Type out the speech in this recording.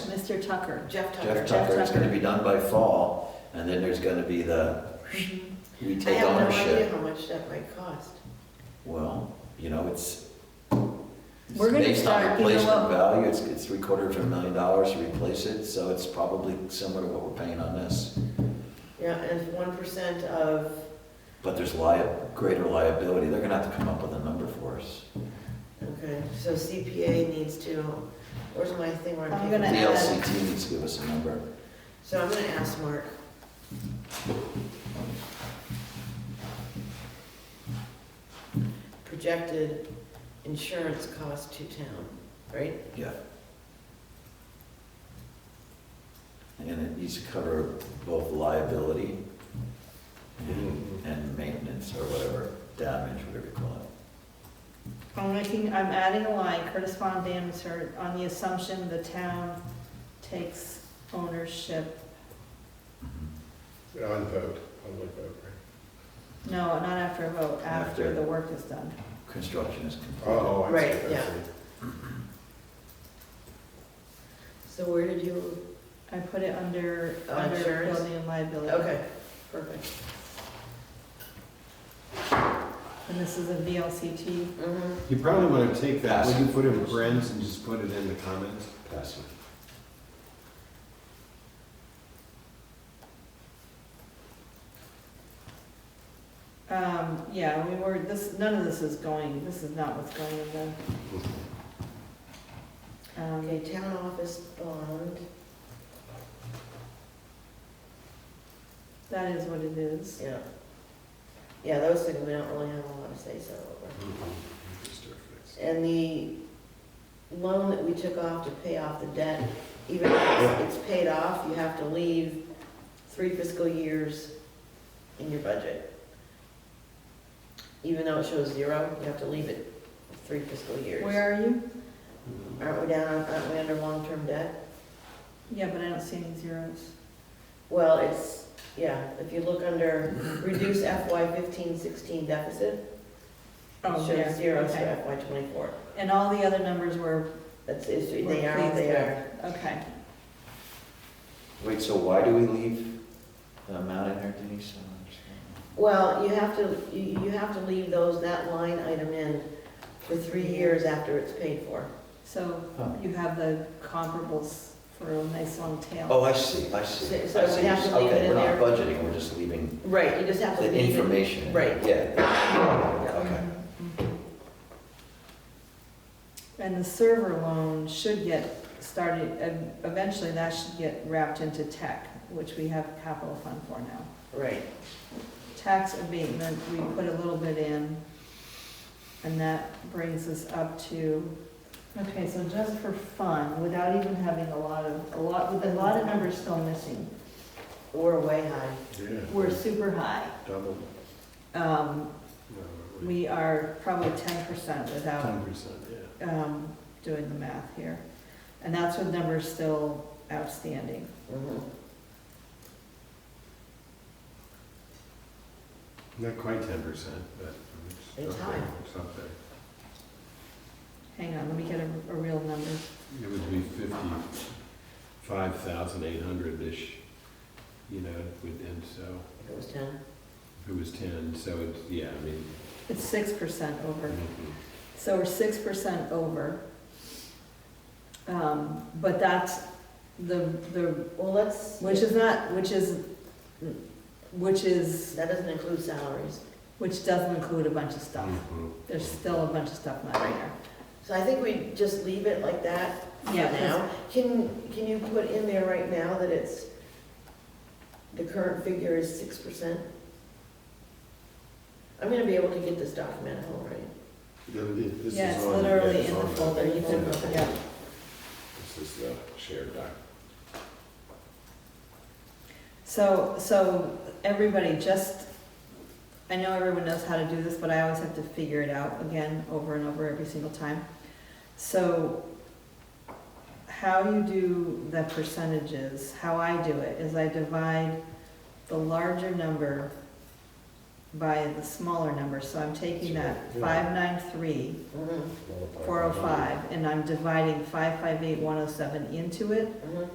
Mr. Tucker. Jeff Tucker. Jeff Tucker, it's gonna Tucker. be done by fall, and then there's gonna be the, Mhm. we I take have no idea ownership. how much that might cost. Well, you know, it's, it's We're gonna based on start, you know replacement what? value, it's, it's three quarter of a million dollars to replace it, so it's probably similar to what we're paying on this. Yeah, and one percent of, But there's lia, greater liability, they're gonna have to come up with a number for us. okay, so CPA needs to, where's my thing where I'm I'm The gonna taking? add- LCT needs to give us a number. So I'm gonna ask Mark. Projected insurance cost to town, right? Yeah. And it needs to cover both liability and- and maintenance or whatever, damage, whatever you call it. I'm making, I'm adding a line, Curtis Von Dam is hurt, on the assumption the town takes ownership. On vote, public vote, right? No, not after a vote, after After. the work is done. Construction is completed. Oh, I see, Right, I see. yeah. So where did you, I put it under, Oh, under insurance? building and liability. okay, perfect. And this is a VLCT. Mhm. You probably want to take that, Pass. when you put in Brent's and just put it in the comments. Passive. Um, yeah, we were, this, none of this is going, this is not what's going in the, Okay, um, town office bond, that is what it is. yeah. Yeah, those things, we don't really have a lot to say so over. Mm-hmm. And the loan that we took off to pay off the debt, even if it's it's paid off, you have to leave three fiscal years in your budget. Even though it shows zero, you have to leave it three fiscal years. Where are you? Aren't we down, aren't we under long-term debt? Yeah, but I don't see any zeros. Well, it's, yeah, if you look under reduce FY fifteen sixteen deficit, it Oh, shows yeah, zeros okay. for FY twenty-four. And all the other numbers were, That's, it's- they We're are, what pleased they with. are. okay. Wait, so why do we leave the amount in there, Denise? I don't understand. Well, you have to, you, you have to leave those, that line item in for three years after it's paid for. So Huh. you have the comparables for a nice long tail. Oh, I see, I So- see. so I see. we have to leave Okay, it in We're not budgeting, we're just leaving Right, you just have to the leave it. information. Right. Yeah. Okay. Mhm. And the server loan should get started, and eventually that should get wrapped into tech, which we have capital fund for now. Right, Tax abatement, we put a little bit in, and that brings us up to, okay, so just for fun, without even having a lot of, a lot, with a lot of numbers still missing, we're way high. we're super high. Double, Um, no, we uh, are probably ten percent without, ten percent, yeah. um, doing the math here. And that's with numbers still outstanding. Mhm. Not quite ten percent, but it's It's up there, high. it's up there. Hang on, let me get a, a real number. It would be fifty-five thousand eight hundred-ish, you know, with- and so, If It was ten. if it was ten, so it's, yeah, I mean. It's six percent over. mhm. So we're six percent over. Um, but that's the, the, Well, let's, which that is not, which is, which is, doesn't include salaries. which doesn't include a bunch of stuff. Mhm. There's still a bunch of stuff not in there. So I think we just leave it like that for Yeah, 'cause- now. Can, can you put in there right now that it's, the current figure is six percent? I'm gonna be able to get this document at home, right? Yeah, it- This is on. Yeah, it's yeah, literally it's in the on. folder. You can, Yeah. yeah. This is the shared doc. So, so everybody just, I know everyone knows how to do this, but I always have to figure it out again, over and over every single time. So how you do the percentages, how I do it, is I divide the larger number by the smaller number, so I'm taking that Sure, yeah. five nine three, Mhm, Multiply four oh by- five, and I'm dividing five five eight, one oh seven into it, mhm.